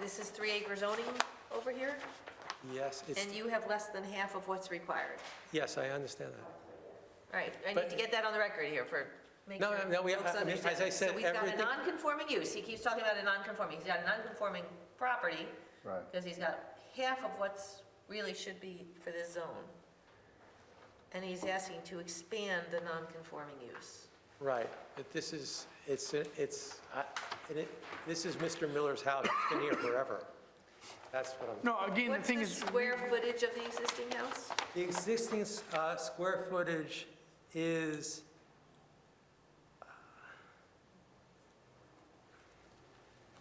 This is three acre zoning over here, Yes, it's, and you have less than half of what's required. yes, I understand that. All right, I need But- to get that on the record here for, make No, sure no, no, we- folks I mean, as I understand. said, So he's everything- got a non-conforming use, he keeps talking about a non-conforming, he's got a non-conforming property. Right. Because he's got half of what's really should be for this zone. And he's asking to expand the non-conforming use. Right, but this is, it's, it's, I- and it- this is Mr. Miller's house, it's been here forever. That's what I'm, No, again, the What's thing the is, square footage of the existing house? the existing uh, square footage is, uh,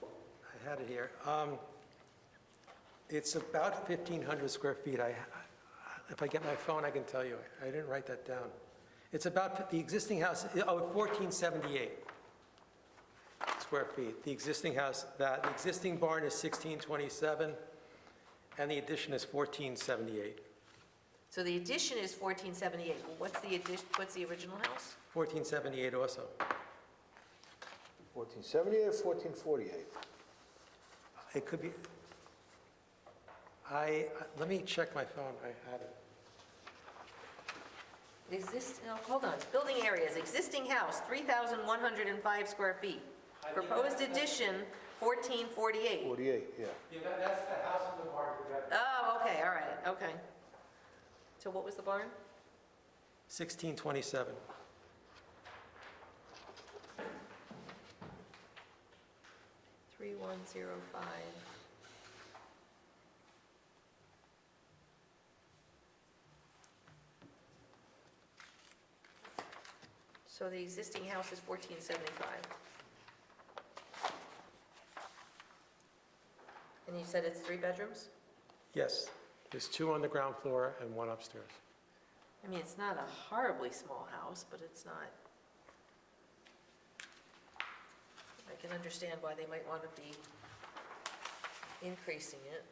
I had it here, Um, it's about 1,500 square feet. I, if I get my phone, I can tell you, I didn't write that down. It's about, the existing house, oh, 1,478 square feet, the existing house, that, the existing barn is 1,627, and the addition is 1,478. So the addition is 1478, Well, what's the addition, what's the original house? 1478 also. 1478 or 1448? It could be, I, let me check my phone, I had it. Exist, no, hold on, building areas, existing house, 3,105 square feet. Proposed addition, 1448. 48, yeah. Yeah, that's the house in the barn. Oh, okay, all right, okay. So what was the barn? 1627. Three one zero five. So the existing house is fourteen seventy-five. And you said it's three bedrooms? Yes, there's two on the ground floor and one upstairs. I mean, it's not a horribly small house, but it's not. I can understand why they might want to be increasing it.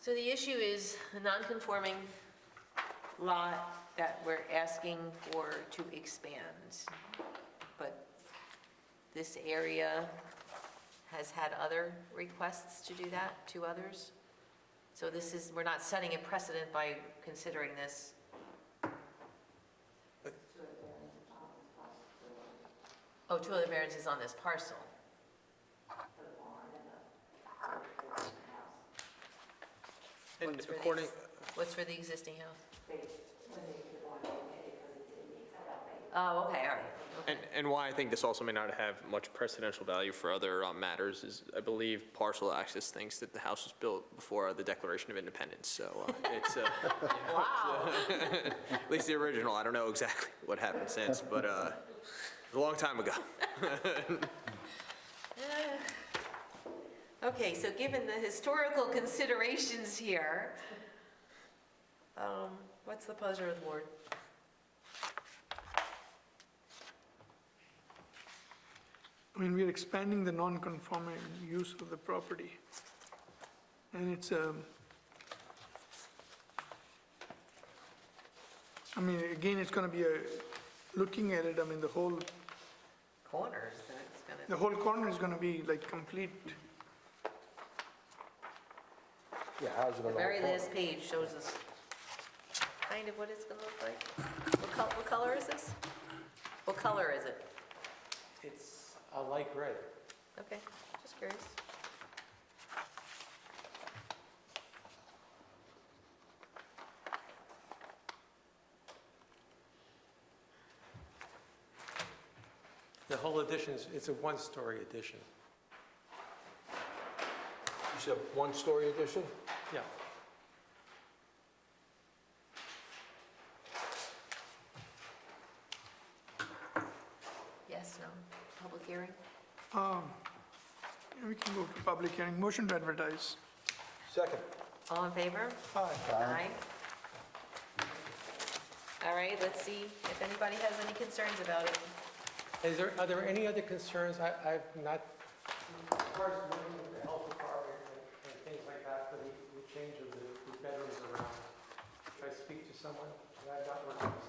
So the issue is a non-conforming lot that we're asking for to expand. But this area has had other requests to do that to others. So this is, we're not setting a precedent by considering this. Oh, two other variances on this parcel. And What's for the ex- according, What's for the existing house? Oh, okay, all right. And, and why I think this also may not have much precedential value for other uh, matters is, I believe parcel access thinks that the house was built before the Declaration of Independence, so uh, it's, uh, Wow, at least the original, I don't know exactly what happened since, but uh, it was a long time ago. okay, so given the historical considerations here, um, what's the pleasure of the board? I mean, we're expanding the non-conforming use of the property. And it's um, a, I mean, again, it's gonna be a, looking at it, I mean, the whole, Corners, that's gonna. the whole corner is gonna be like complete, Yeah, how's it The on the very whole last page shows us kind of what it's gonna look like. What color, what color is this? What color is it? it's a light gray. Okay, just curious. The whole addition is, it's a one-story addition. You said one-story addition? Yeah. Yes, no, public hearing? um, we can go to public hearing, motion to advertise. Second. All in favor? Aye. All right, let's see if anybody has any concerns about it. Is there, are there any other concerns? I, I've not. and things like that, for the change of the bedrooms around. Should I speak to someone? Should I not work on this?